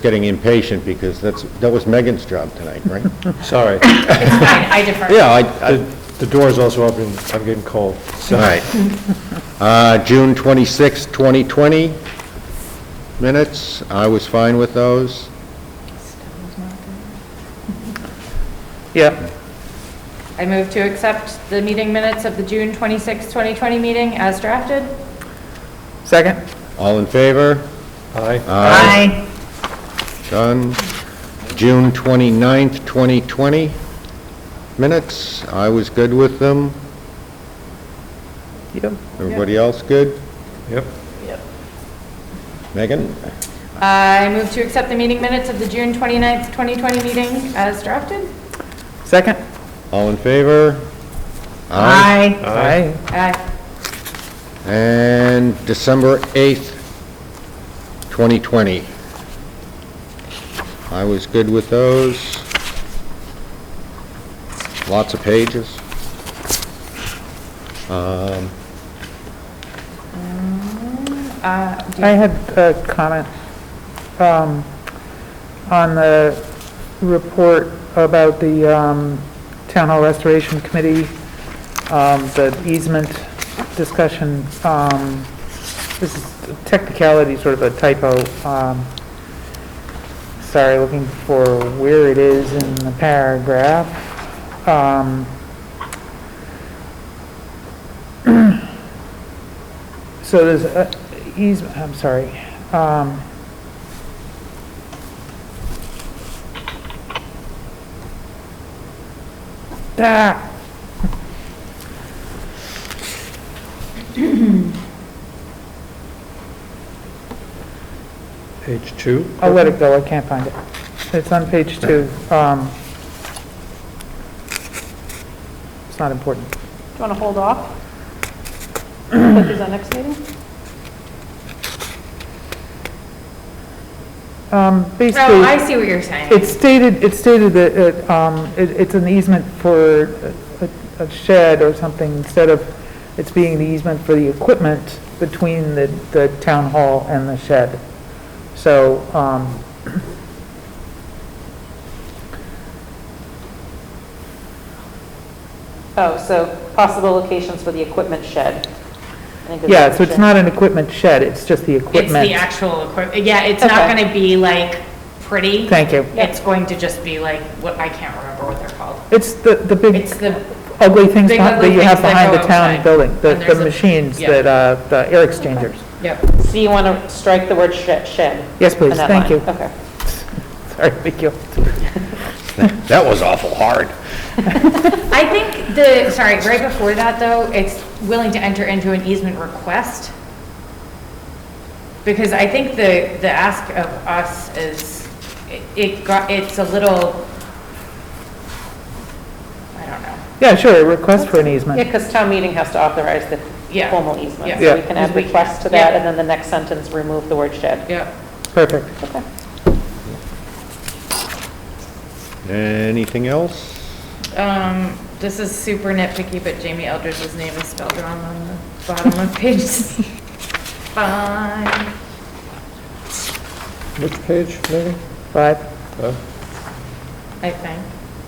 getting impatient because that's, that was Megan's job tonight, right? Sorry. I I defer. Yeah, I, I, The the door's also open, I'm getting cold. all right. Uh, June 26, 2020 minutes, I was fine with those. Yeah. I move to accept the meeting minutes of the June 26, 2020 meeting as drafted. Second? All in favor? Aye. Aye. Done. June 29, 2020 minutes, I was good with them. Yep. Everybody else good? Yep. Megan? I move to accept the meeting minutes of the June 29, 2020 meeting as drafted. Second? All in favor? Aye. Aye. And December 8th, 2020. I was good with those. Lots of pages. Um, Uh, do you- I had a comment um, on the report about the um, Town Hall Restoration Committee, um, the easement discussion. um, This is technicality, sort of a typo. um, Sorry, looking for where it is in the paragraph. Um, So there's uh, easement, I'm sorry. um, ah. Page two. I'll let it go, I can't find it. It's on page two. um, It's not important. do you want to hold off? Put these on next meeting? No, Um, Oh, I Basically, see what you're saying. it stated, it stated that it, um, it- it's an easement for a- a shed or something, instead of it's being the easement for the equipment between the, the town hall and the shed. So, um, Oh, so possible locations for the equipment shed. I think is Yeah, what so it's you're not an equipment shed, it's just the It's equipment. the actual equipment. Yeah, it's not Okay. going to be like pretty. Thank you. It's going to just be like, what, I can't remember what they're called. It's the, the big It's the, ugly things big behind- that ugly you have things that behind go the town outside. building, the, And the there's a- machines yeah. that, uh, the air exchangers. yep. saying. So you want to strike the word shed, shed? Yes, please, in that thank line. you. Okay. Sorry, thank you. That was awful hard. I think the, sorry, right before that, though, it's willing to enter into an easement request. Because I think the, the ask of us is, it- it got, it's a little, I don't know. Yeah, sure, a request for an Yeah, easement. because town meeting has to authorize the Yeah. formal easement. Yeah. So we can add Yeah. requests to that, and then the next sentence, remove the word shed. Yeah. Perfect. Okay. Anything else? Um, this is super nitpicky, but Jamie Eldridge's name is spelled wrong on the bottom of page five. Which page, Megan? Five? Uh, I think.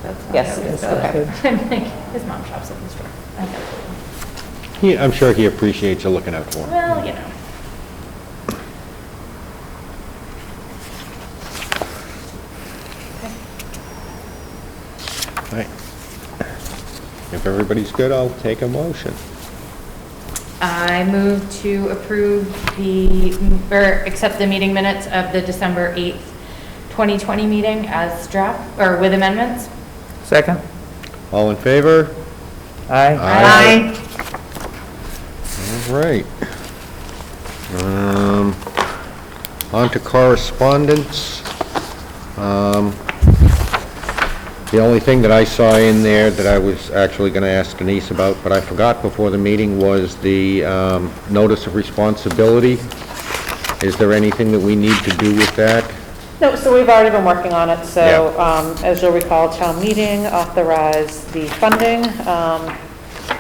That's not Yes, how it we is, spell okay. I'm like, His mom shops at the store. I know. He, I'm sure he appreciates you looking out for him. Well, you know. All right. If everybody's good, I'll take a motion. I move to approve the, or accept the meeting minutes of the December 8th, 2020 meeting as draft, or with amendments. Second? All in favor? Aye. Aye. All right. Um, On to correspondence. Um, The only thing that I saw in there that I was actually going to ask Denise about, but I forgot before the meeting, was the um, notice of responsibility. Is there anything that we need to do with that? No, so we've already been working on it, so, Yeah. um, as you'll recall, town meeting authorized the funding. Um,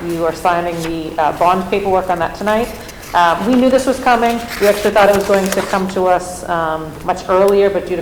you are signing the, uh, bond paperwork on that tonight. Uh, we knew this was coming, we actually thought it was going to come to us, um, much earlier, but due to